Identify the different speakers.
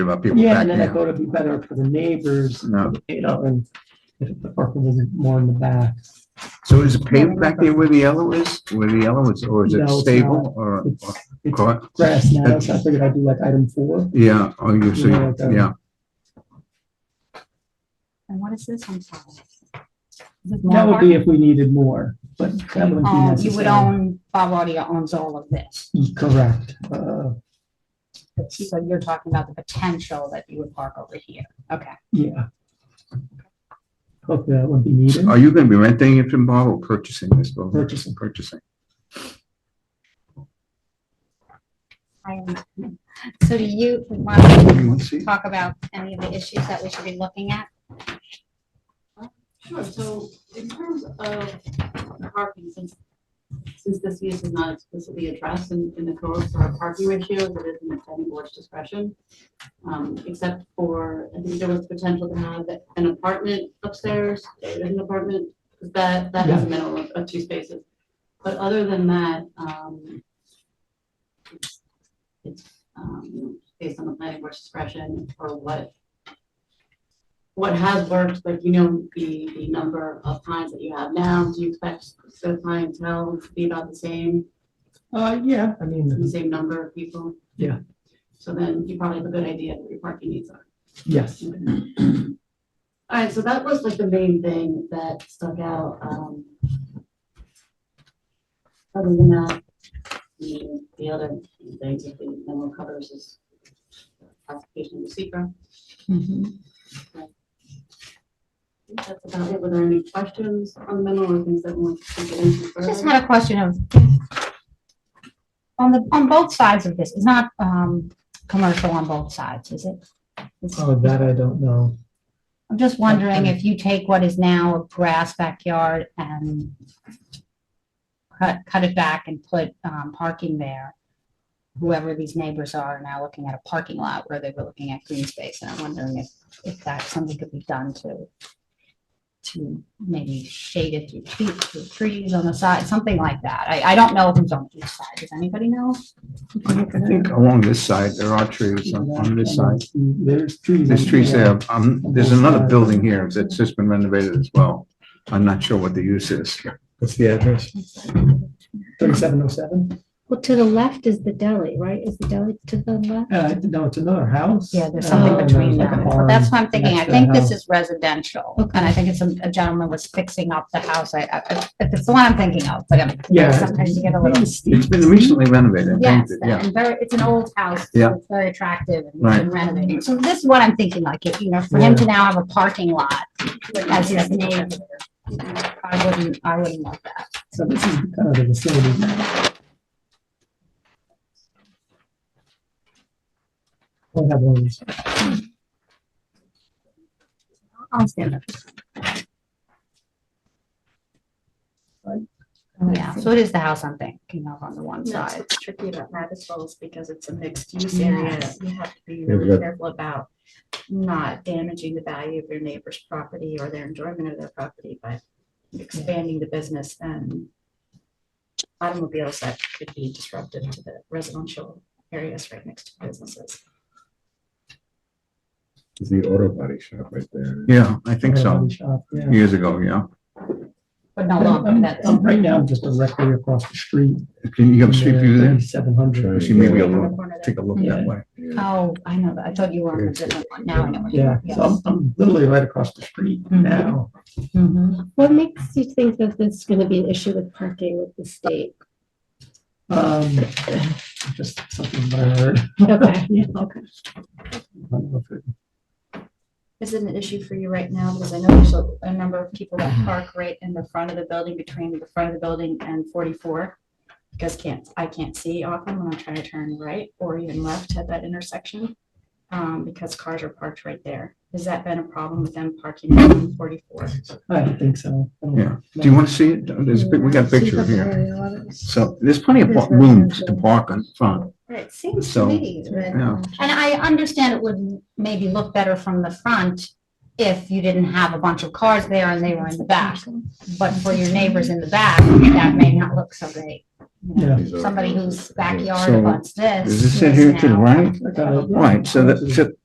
Speaker 1: about people
Speaker 2: Yeah,
Speaker 1: back
Speaker 2: and then I
Speaker 1: in.
Speaker 2: thought it'd be better for the neighbors,
Speaker 1: No.
Speaker 2: you know, and if the parking was more in the back.
Speaker 1: So is it paved back there where the yellow is, where the yellow is, or is
Speaker 2: No,
Speaker 1: it
Speaker 2: it's
Speaker 1: stable
Speaker 2: not.
Speaker 1: or?
Speaker 2: It's,
Speaker 1: or
Speaker 2: it's
Speaker 1: car?
Speaker 2: grass now, so I figured I'd do like item four.
Speaker 1: Yeah, oh, you see,
Speaker 2: No, it's, um,
Speaker 1: yeah,
Speaker 3: And what is this? I'm sorry. Is it
Speaker 2: That
Speaker 3: more
Speaker 2: would be
Speaker 3: park?
Speaker 2: if we needed more, but that wouldn't be
Speaker 3: Um, you would
Speaker 2: necessary.
Speaker 3: own, Bob Audio owns all of this.
Speaker 2: Correct. Uh,
Speaker 3: So you're talking about the potential that you would park over here. Okay.
Speaker 2: yeah. Hope that would be needed.
Speaker 1: are you gonna be renting it from Bob or purchasing this building?
Speaker 2: Purchasing.
Speaker 1: Purchasing,
Speaker 3: I am- So do you want to
Speaker 1: you want to see?
Speaker 3: talk about any of the issues that we should be looking at?
Speaker 4: Sure, so in terms of parking, since, since this use is not explicitly addressed in, in the code for our parking ratios, it is in the planning board's discretion. Um, except for, I think there was potential to have an apartment upstairs, there is an apartment, 'cause that, that has a minimum of- of two spaces. But other than that, um, it's- it's, um, based on the planning board's discretion or what what has worked, like, you know, the, the number of clients that you have now, do you expect the clientele to be about the same,
Speaker 2: Uh, yeah, I
Speaker 4: the
Speaker 2: mean,
Speaker 4: same number of people?
Speaker 2: Yeah.
Speaker 4: So then you probably have a good idea of what your parking needs are.
Speaker 2: yes.
Speaker 4: All right, so that was like the main thing that stuck out. um, Other than that, the, the other things that the memo covers is application of the secret.
Speaker 3: Mm-hmm.
Speaker 4: That's about it. Were there any questions on the memo or things that we want to get into further?
Speaker 3: Just had a question of, on the, on both sides of this, it's not, um, commercial on both sides, is it? It's-
Speaker 2: Oh, that I don't know.
Speaker 3: I'm just wondering if you take what is now a grass backyard and cut, cut it back and put, um, parking there. Whoever these neighbors are are now looking at a parking lot where they were looking at green space, and I'm wondering if, if that, something could be done to, to maybe shade it through trees, through trees on the side, something like that. I, I don't know if it's on each side. Does anybody know?
Speaker 1: I think along this side, there are trees on, on this side.
Speaker 2: There's trees.
Speaker 1: There's trees there, um, there's
Speaker 2: both
Speaker 1: another
Speaker 2: sides.
Speaker 1: building here that's just been renovated as well. I'm not sure what the use is.
Speaker 5: What's the address?
Speaker 2: Thirty-seven oh seven.
Speaker 6: Well, to the left is the deli, right? Is the deli to the left?
Speaker 2: Uh, no, it's another house.
Speaker 3: Yeah, there's
Speaker 2: Uh,
Speaker 3: something
Speaker 2: and
Speaker 3: between
Speaker 2: like a
Speaker 3: them.
Speaker 2: barn
Speaker 3: But that's what I'm thinking. I
Speaker 2: next to
Speaker 3: think
Speaker 2: the
Speaker 3: this
Speaker 2: house.
Speaker 3: is residential.
Speaker 6: Okay.
Speaker 3: And I think it's a a gentleman was fixing up the house. I, I, I- it's the one I'm thinking of, but I'm, you know,
Speaker 2: Yeah.
Speaker 3: sometimes you get a little.
Speaker 1: It's been recently renovated. and
Speaker 3: Yes,
Speaker 1: painted, Yeah,
Speaker 3: and very, it's an old house. so
Speaker 1: Yeah.
Speaker 3: It's very attractive and
Speaker 1: Right.
Speaker 3: been renovating. So this is what I'm thinking, like, if, you know, for him to now have a parking lot as his neighbor. I wouldn't, I wouldn't want that.
Speaker 2: So this is kind of the vicinity. Don't have one of these.
Speaker 3: I'll stand up. Yeah, so it is the house I'm thinking of on the one
Speaker 7: That's
Speaker 3: side.
Speaker 7: what's tricky about rabbit holes because it's a mixed use area. You have to be
Speaker 5: Yeah, we
Speaker 7: really
Speaker 5: got-
Speaker 7: careful about not damaging the value of your neighbor's property or their enjoyment of their property, but expanding the business and automobiles that could be disruptive to the residential areas right next to businesses.
Speaker 5: It's the auto body shop right there.
Speaker 1: yeah, I think so,
Speaker 2: Body shop, yeah.
Speaker 1: years ago, yeah.
Speaker 3: But no longer,
Speaker 2: I'm-
Speaker 3: that's.
Speaker 2: I'm- Right now, I'm just directly across the street.
Speaker 1: Can you have a street view there?
Speaker 2: Seven hundred.
Speaker 1: Actually, maybe
Speaker 7: Yeah.
Speaker 1: I'll look- take a look that way.
Speaker 5: Yeah.
Speaker 3: Oh, I know that. I thought you were on a different one. Now I know. what you
Speaker 2: Yeah,
Speaker 3: mean. Yes.
Speaker 2: so I'm, I'm literally right across the street
Speaker 3: Mhm.
Speaker 2: now.
Speaker 3: Mhm.
Speaker 6: Mm-hmm. What makes you think that this is gonna be an issue with parking with the state?
Speaker 2: Um, just something that I heard.
Speaker 6: Okay.
Speaker 2: Yeah.
Speaker 7: Okay.
Speaker 2: I don't know if it-
Speaker 7: Is it an issue for you right now? Because I know there's a, a number of people that park right in the front of the building, between the front of the building and forty-four. Because can't, I can't see often when I'm trying to turn right or even left at that intersection. Um, because cars are parked right there. Has that been a problem with them parking on forty-four?
Speaker 2: I don't think so. I don't-
Speaker 1: Yeah. Do you want to see it? There's, a pic- we got a picture here. So there's plenty of
Speaker 6: There's
Speaker 1: par- room
Speaker 6: residential.
Speaker 1: to park in front,
Speaker 7: It seems
Speaker 1: So,
Speaker 7: me
Speaker 1: yeah.
Speaker 3: And I understand it would maybe look better from the front if you didn't have a bunch of cars there and they were in the back. But for your neighbors in the back, that may not look so great. you know.
Speaker 2: Yeah.
Speaker 5: These auto
Speaker 3: Somebody
Speaker 5: body
Speaker 3: whose
Speaker 5: shops.
Speaker 3: backyard
Speaker 1: So,
Speaker 3: abuts this.
Speaker 1: Does this sit here to the
Speaker 3: now-
Speaker 1: right?
Speaker 2: I got it.
Speaker 1: Right, so that, so